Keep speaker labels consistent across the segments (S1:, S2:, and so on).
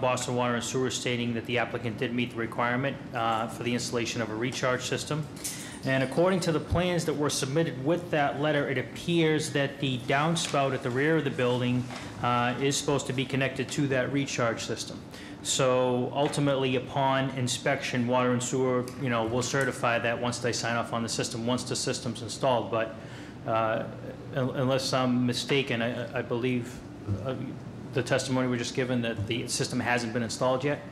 S1: Boston Water and Sewer stating that the applicant did meet the requirement uh, for the installation of a recharge system. And according to the plans that were submitted with that letter, it appears that the downspout at the rear of the building uh, is supposed to be connected to that recharge system. So ultimately, upon inspection, Water and Sewer, you know, will certify that once they sign off on the system, once the system's installed. But uh, un- unless I'm mistaken, I I believe uh, the testimony we just given that the system hasn't been installed yet?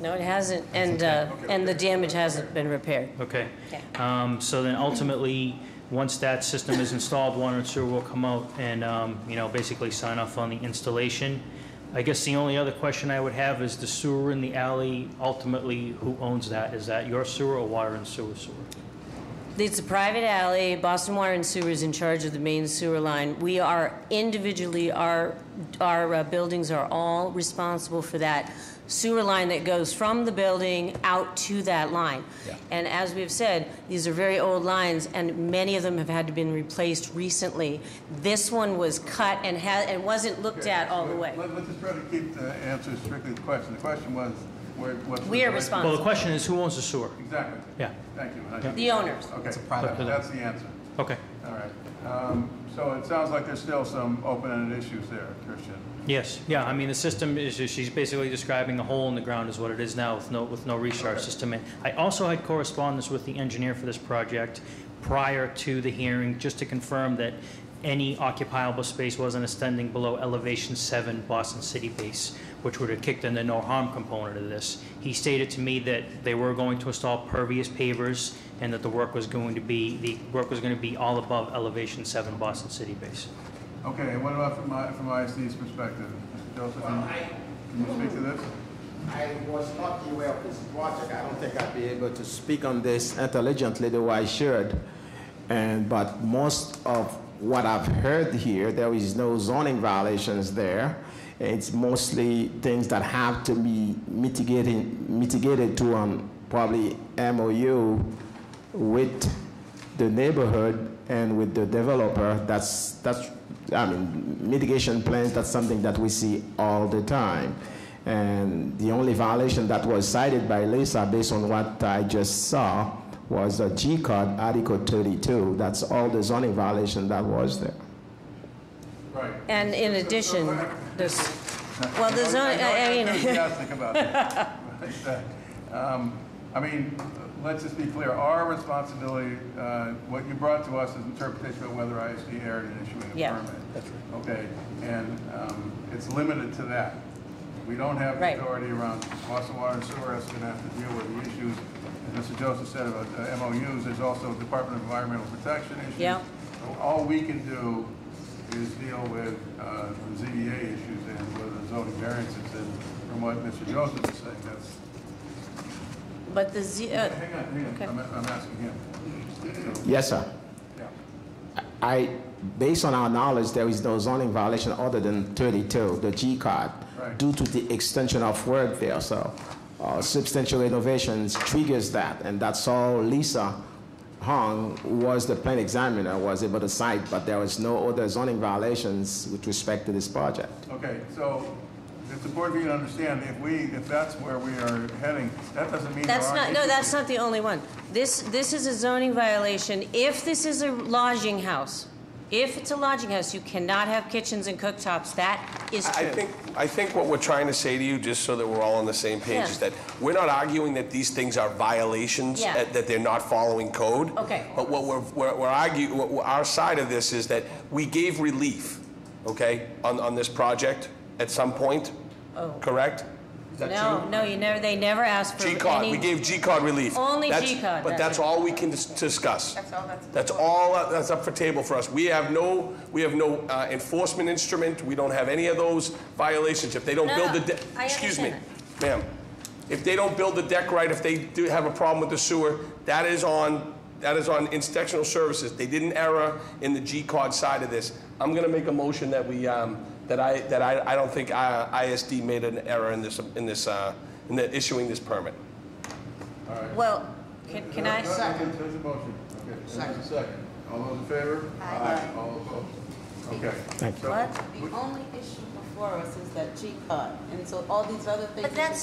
S2: No, it hasn't, and, uh, and the damage hasn't been repaired.
S1: Okay.
S2: Yeah.
S1: Um, So then ultimately, once that system is installed, Water and Sewer will come out and, um, you know, basically sign off on the installation. I guess the only other question I would have is the sewer in the alley, ultimately, who owns that? Is that your sewer or Water and Sewer sewer?
S2: It's a private alley. Boston Water and Sewer is in charge of the main sewer line. We are individually, our, our uh, buildings are all responsible for that sewer line that goes from the building out to that line. And as we've said, these are very old lines, and many of them have had to been replaced recently. This one was cut and had, and wasn't looked at all the way.
S3: Let- Let's just try to keep the answer strictly to the question. The question was, where, what's the...
S2: We are
S3: relation-
S1: Well, the question is, who owns the sewer?
S3: Exactly.
S1: Yeah.
S3: Thank you.
S1: Yeah.
S2: The owners.
S3: Okay,
S1: private-
S3: that- that's the answer.
S1: Okay.
S3: All right. Um, So it sounds like there's still some open-ended issues there, Christian.
S1: Yes, yeah, I mean, the system is, she's basically describing a hole in the ground is what it is now with no, with no recharge system. And I also had correspondence with the engineer for this project prior to the hearing, just to confirm that any occupiable space wasn't extending below elevation seven Boston City base, which would have kicked in the no harm component of this. He stated to me that they were going to install pervious pavers and that the work was going to be, the work was going to be all above elevation seven Boston City base.
S3: Okay, and what about from I- from ISD's perspective? Mr. Joseph,
S4: Well,
S3: can
S4: I,
S3: you can you speak to this?
S4: I was not aware of this project. I don't think I'd be able to speak on this intelligently the way I should. And, but most of what I've heard here, there is no zoning violations there. It's mostly things that have to be mitigated, mitigated to um, probably MOU with the neighborhood and with the developer, that's, that's, I mean, mitigation plans, that's something that we see all the time. And the only violation that was cited by Lisa, based on what I just saw, was a G card, Article 32. That's all the zoning violation that was there.
S3: Right.
S2: And in addition, this, well, the zone, I I
S3: I'm
S2: mean.
S3: enthusiastic about that. Um, I mean, let's just be clear, our responsibility, uh, what you brought to us is interpretation of whether ISD erred in issuing a
S2: Yeah.
S3: permit. Okay, and um, it's limited to that. We don't have the
S2: Right.
S3: authority around Boston Water and Sewer, is going to have to deal with the issues. As Mr. Joseph said about uh, MOUs, there's also Department of Environmental Protection issues.
S2: Yeah.
S3: So All we can do is deal with uh, the ZBA issues and with the zoning variances and from what Mr. Joseph is saying, that's,
S2: But the Z, uh,
S3: hang on, hang on, I'm I'm asking him. So,
S4: Yes, sir.
S3: yeah.
S4: I, based on our knowledge, there is no zoning violation other than 32, the G card,
S3: Right.
S4: due to the extension of work there, so uh, substantial renovations triggers that, and that's all Lisa Hong was the plan examiner, was able to cite, but there was no other zoning violations with respect to this project.
S3: Okay, so it's important for you to understand, if we, if that's where we are heading, that doesn't mean there
S2: that's not,
S3: aren't
S2: no,
S3: issues.
S2: that's not the only one. This, this is a zoning violation. If this is a lodging house, if it's a lodging house, you cannot have kitchens and cooktops. That is
S5: I
S2: true.
S5: think, I think what we're trying to say to you, just so that we're all on the same page, is
S2: Yeah.
S5: that we're not arguing that these things are violations,
S2: Yeah.
S5: that that they're not following code.
S2: Okay.
S5: But what we're, we're we're arguing, what- what our side of this is that we gave relief, okay, on, on this project at some point, correct?
S2: No, no, you never, they never asked Oh. for any.
S5: G-card, we gave G-card relief.
S2: Only
S5: That's-
S2: G-card,
S5: But
S2: that's
S5: that's
S2: it.
S5: all we can dis- discuss. That's all that's. all, uh, that's up for table for us. We have no, we have no uh, enforcement instrument, we don't have any of those violations. If they don't
S2: No,
S5: build the,
S2: no,
S5: de-
S2: I
S5: excuse me,
S2: understand
S5: ma'am, if they don't build the deck right, if they do have a problem with the sewer, that is on, that is on inspectional services. They did an error in the G-card side of this. I'm gonna make a motion that we, um, that I, that I, I don't think uh, I- ISD made an error in this, in this, uh, in the issuing this permit.
S2: Well, can, can I?
S3: No, no, There's a motion, okay. There's a second. All those in favor? Aye. All opposed? Okay.
S4: Thank
S3: So-
S2: What?
S6: The only issue before us is that G-Cod, and so all these other things.
S2: But that's